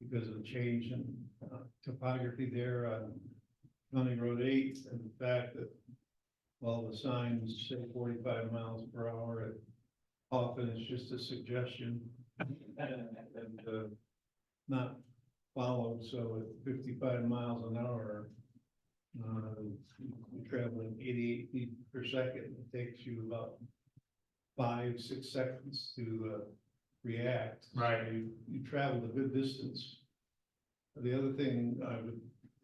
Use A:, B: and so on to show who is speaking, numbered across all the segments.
A: because of the change in uh, topography there on County Road eight and the fact that all the signs say forty-five miles per hour, it- often it's just a suggestion and uh, not followed, so at fifty-five miles an hour, uh, you're traveling eighty-eight feet per second, it takes you about five, six seconds to uh, react.
B: Right.
A: So You, you traveled a good distance. The other thing I would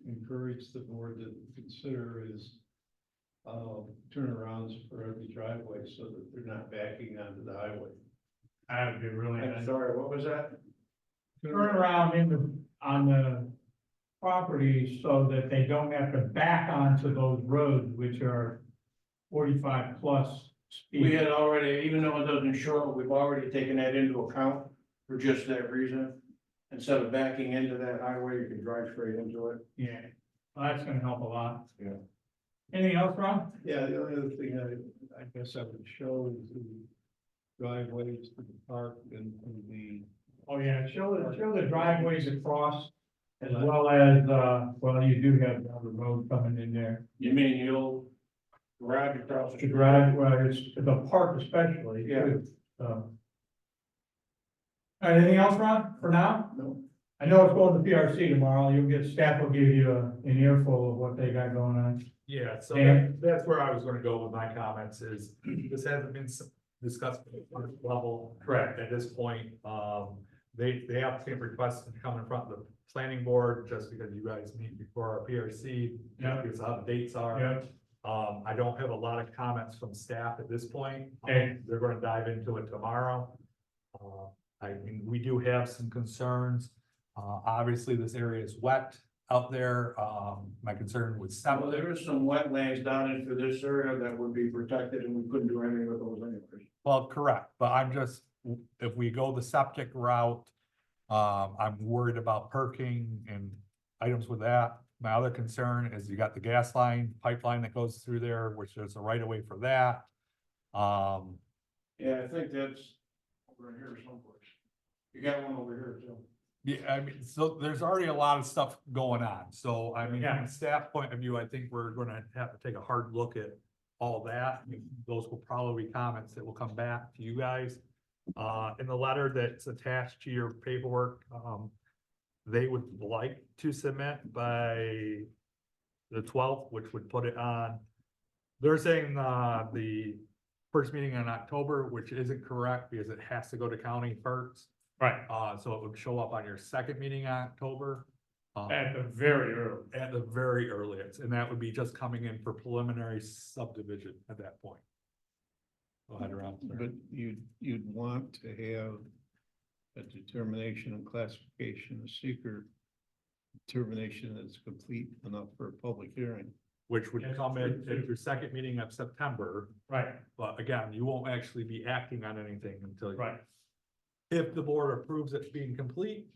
A: encourage the board to consider is uh, turnarounds for every driveway so that they're not backing onto the highway.
B: That would be really nice.
A: sorry, what was that?
B: Turnaround in the, on the property so that they don't have to back onto those roads which are forty-five plus
C: We
B: speed.
C: had already, even though it doesn't show, we've already taken that into account for just that reason. Instead of backing into that highway, you can drive straight into it.
B: Yeah, well, that's gonna help a lot.
C: Yeah.
B: Anything else, Ron?
A: Yeah, the only other thing I, I guess I would show is the driveways to the park and to the,
B: Oh, yeah, show the, show the driveways across as well as, uh, well, you do have another road coming in there.
C: You mean you'll garage across
B: To
C: the
B: drive, well, it's the park especially.
C: Yeah.
B: too, so. All right, Anything else, Ron, for now?
C: No.
B: I know it's going to PRC tomorrow. You'll get, staff will give you a- an earful of what they got going on.
D: Yeah, so
B: And-
D: that- that's where I was gonna go with my comments is, this hasn't been s- discussed at the first level. Correct. At this point, um, they, they have to request to come in front of the planning board, just because you guys meet before our PRC.
B: Yeah.
D: Because how the dates are.
B: Yeah.
D: Um, I don't have a lot of comments from staff at this point. Um,
B: Okay.
D: They're gonna dive into it tomorrow. Uh, I mean, we do have some concerns. Uh, obviously, this area is wet out there. Um, my concern with
C: Well,
D: septic.
C: there is some wetlands down into this area that would be protected and we couldn't do anything with those anyways.
D: Well, correct, but I'm just, if we go the septic route, um, I'm worried about perking and items with that. My other concern is you got the gas line pipeline that goes through there, which there's a right of way for that. Um,
C: Yeah, I think that's over in here someplace. You got one over here too.
D: yeah, I mean, so there's already a lot of stuff going on, so I mean, from
B: Yeah.
D: a staff point of view, I think we're gonna have to take a hard look at all that. Those will probably be comments that will come back to you guys. Uh, in the letter that's attached to your paperwork, um, they would like to submit by the twelfth, which would put it on. They're saying, uh, the first meeting in October, which isn't correct because it has to go to county first.
B: Right.
D: Uh, so it would show up on your second meeting in October. uh,
B: At the very early.
D: At the very earliest, and that would be just coming in for preliminary subdivision at that point. Go ahead around.
A: but you'd, you'd want to have a determination and classification of seeker determination that's complete enough for a public hearing.
D: Which would
B: Yes,
D: come in
B: true,
D: at
B: true.
D: your second meeting of September,
B: Right,
D: but again, you won't actually be acting on anything until.
B: right.
D: If the board approves it being complete.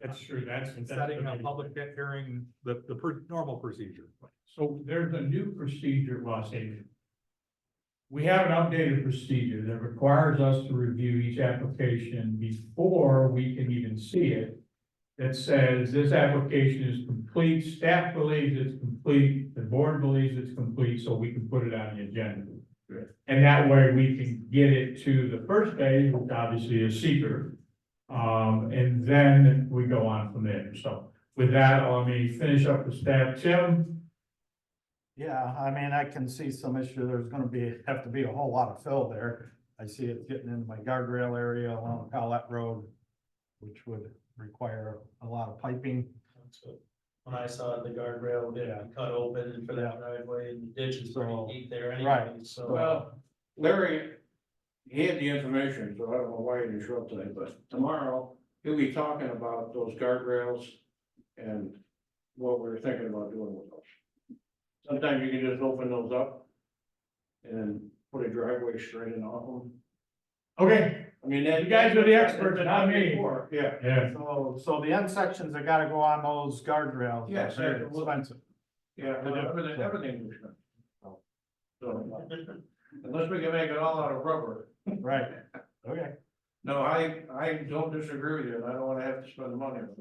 B: That's true. That's.
D: And
B: that's
D: setting
B: the
D: a
B: big-
D: public hearing, the, the pr- normal procedure.
B: So there's a new procedure, well, I say We have an updated procedure that requires us to review each application before we can even see it. That says this application is complete, staff believes it's complete, the board believes it's complete, so we can put it on the agenda.
C: Right.
B: And that way we can get it to the first phase, which obviously is seeker. Um, and then we go on from there. So with that, let me finish up with staff. Tim,
C: Yeah, I mean, I can see some issue, there's gonna be, have to be a whole lot of fill there. I see it getting into my guardrail area along Collette Road, which would require a lot of piping.
E: That's what- When I saw the guardrail getting cut open for that driveway and the ditch is pretty
C: So-
E: deep there
C: right.
E: anyway, so.
C: Well, Larry, he had the information, so I don't know why he didn't show up today, but tomorrow, he'll be talking about those guardrails and what we're thinking about doing with those. Sometimes you can just open those up and put a driveway straight in off them.
B: Okay,
C: I mean, that.
B: You guys are the experts, not me.
C: Yeah.
B: yeah,
F: So, so the end sections that gotta go on those guardrails, that's
C: Yes,
F: very
C: sir.
F: expensive.
C: Yeah, well, everything, everything was done. So, unless we can make it all out of rubber,
F: right, okay.
C: no, I, I don't disagree with you, and I don't wanna have to spend the money.